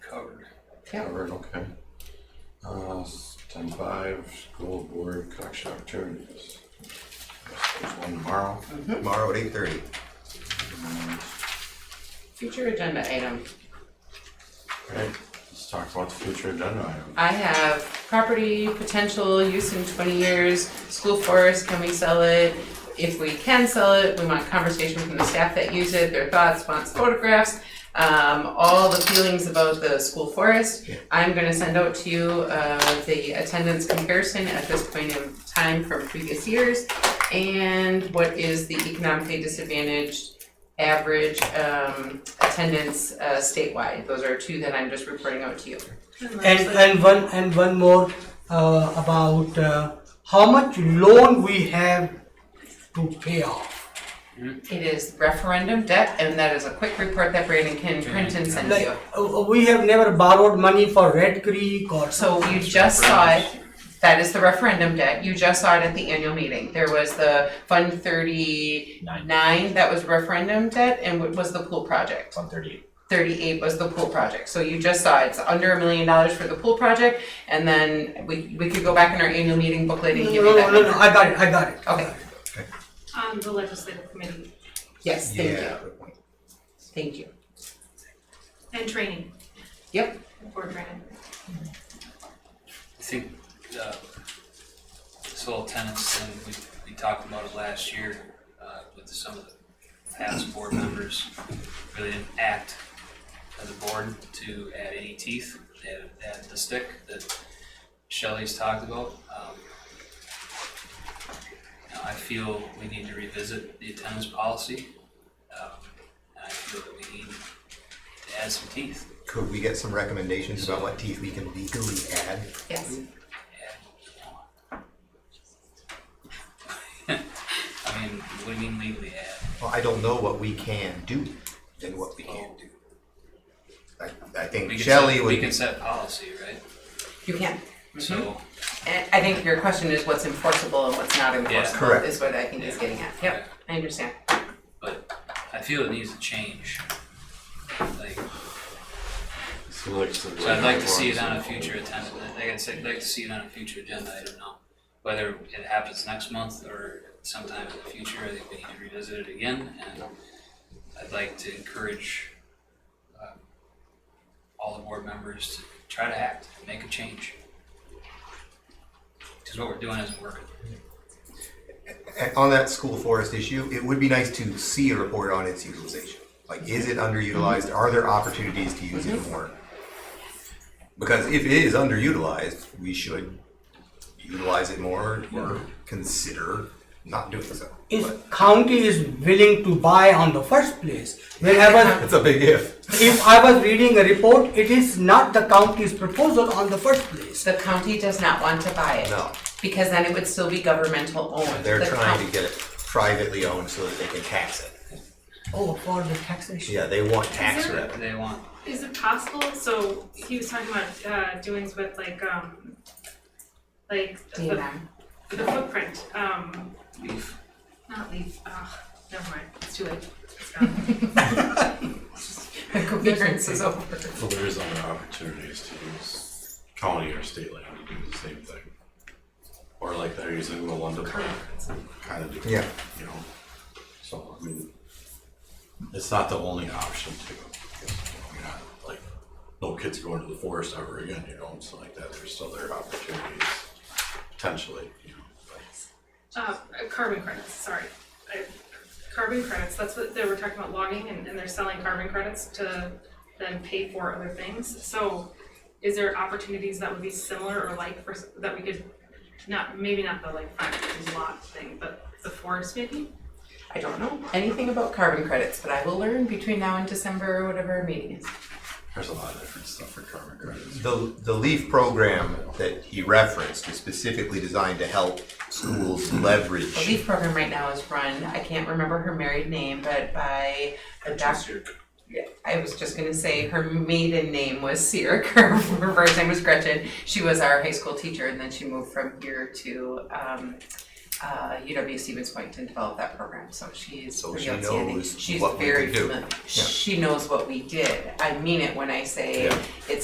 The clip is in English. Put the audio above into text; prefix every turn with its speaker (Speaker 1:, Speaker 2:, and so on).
Speaker 1: Tavern, okay. Uh, s- ten five, school board collection opportunities. Guess There's one tomorrow.
Speaker 2: Tomorrow at eight thirty.
Speaker 3: Future agenda item.
Speaker 1: Okay, let's talk about the future agenda item.
Speaker 3: I have property, potential use in twenty years, school forest, can we sell it? If we can sell it, we want conversation from the staff that use it, their thoughts, wants, photographs, um, all the feelings about the school forest. I'm gonna send out to you, uh, the attendance comparison at this point in time from previous years. And what is the economically disadvantaged average, um, attendance, uh, statewide? Those are two that I'm just reporting out to you.
Speaker 4: And and one and one more uh, about uh, how much loan we have to pay off.
Speaker 3: It is referendum debt, and that is a quick report that Brandon can print and send
Speaker 4: Like
Speaker 3: you.
Speaker 4: uh, we have never borrowed money for Red Creek or
Speaker 3: So you just saw it, that is the referendum debt, you just saw it at the annual meeting. There was the Fund thirty-nine, that was referendum debt, and what was the pool project?
Speaker 5: One thirty-eight.
Speaker 3: Thirty-eight was the pool project, so you just saw it's under a million dollars for the pool project, and then we, we could go back in our annual meeting booklet and
Speaker 4: No,
Speaker 3: give
Speaker 4: no,
Speaker 3: you
Speaker 4: no,
Speaker 3: that
Speaker 4: no, no,
Speaker 3: number.
Speaker 4: I got it. I got it.
Speaker 3: Okay,
Speaker 6: On the legislative committee
Speaker 3: yes, thank you,
Speaker 2: Yeah. good point.
Speaker 3: thank you.
Speaker 6: and training.
Speaker 3: Yep.
Speaker 6: Board training.
Speaker 7: I think, uh, soil tenants thing, we, we talked about it last year, uh, with some of the past board members really didn't act as a board to add any teeth, they had, they had the stick that Shelley's talked about. Um, you know, I feel we need to revisit the attendance policy, um, and I feel that we need to add some teeth.
Speaker 2: Could we get some recommendations about what teeth we can legally add?
Speaker 3: Yes,
Speaker 7: I mean, what do you mean legally add?
Speaker 2: Well, I don't know what we can do and what we can't do. I, I think
Speaker 7: We can
Speaker 2: Shelley
Speaker 7: set,
Speaker 2: would
Speaker 7: we
Speaker 2: be,
Speaker 7: can set policy, right?
Speaker 3: you can.
Speaker 7: So
Speaker 3: And I think your question is what's enforceable and what's not enforceable
Speaker 2: Correct.
Speaker 3: is what I think is getting at. Yep, I understand.
Speaker 7: I feel it needs to change. Like,
Speaker 1: So like, so
Speaker 7: so I'd like to see it on a future agenda. Like I said, I'd like to see it on a future agenda. I don't know whether it happens next month or sometime in the future. I think we need to revisit it again, and I'd like to encourage um, all the board members to try to act, make a change. Because what we're doing isn't working.
Speaker 2: and on that school forest issue, it would be nice to see a report on its utilization. Like, is it underutilized? Are there opportunities to use it more? Because if it is underutilized, we should utilize it more or consider not doing so. But
Speaker 4: If county is willing to buy on the first place, when I was
Speaker 2: That's a big if.
Speaker 4: if I was reading a report, it is not the county's proposal on the first place.
Speaker 3: The county does not want to buy it.
Speaker 2: No.
Speaker 3: Because then it would still be governmental owned.
Speaker 2: They're
Speaker 3: The
Speaker 2: trying to
Speaker 3: coun-
Speaker 2: get it privately owned so that they can tax it.
Speaker 4: Oh, for the taxation.
Speaker 2: Yeah, they want tax
Speaker 6: Is there-
Speaker 2: revenue.
Speaker 7: They want
Speaker 6: Is it possible, so he was talking about uh doings with like um like the
Speaker 3: DNR.
Speaker 6: the footprint, um
Speaker 7: leaf.
Speaker 6: not leaf, oh, never mind, it's too late. It's gone.
Speaker 3: The coherence is over.
Speaker 1: Well, there is other opportunities to use county or state land to do the same thing. Or like they're using the London Park, kind of do.
Speaker 2: Yeah.
Speaker 1: You know, so, I mean, it's not the only option to, you know, like, no kids going to the forest ever again, you know, it's like that, there's still there opportunities, potentially, you know. but-
Speaker 6: Uh carbon credits, sorry. I- Carbon credits, that's what they were talking about logging and and they're selling carbon credits to then pay for other things, so is there opportunities that would be similar or like for, that we could, not, maybe not the like five lot thing, but the forest maybe?
Speaker 3: I don't know anything about carbon credits, but I will learn between now and December or whatever our meeting is.
Speaker 1: There's a lot of different stuff for carbon credits.
Speaker 2: The, the LEAF program that he referenced is specifically designed to help schools
Speaker 3: The
Speaker 2: leverage.
Speaker 3: LEAF program right now is run, I can't remember her married name, but by a doctor. Yeah, I was just gonna say her maiden name was Sierra Kerr, her first name was Gretchen. She was our high school teacher and then she moved from here to um uh UW Stevens Point and developed that program, so she's
Speaker 2: So
Speaker 3: pretty
Speaker 2: she
Speaker 3: outstanding.
Speaker 2: knows what we could do.
Speaker 3: She's very familiar, she knows what we did. I mean it when I say
Speaker 2: Yeah.
Speaker 3: it's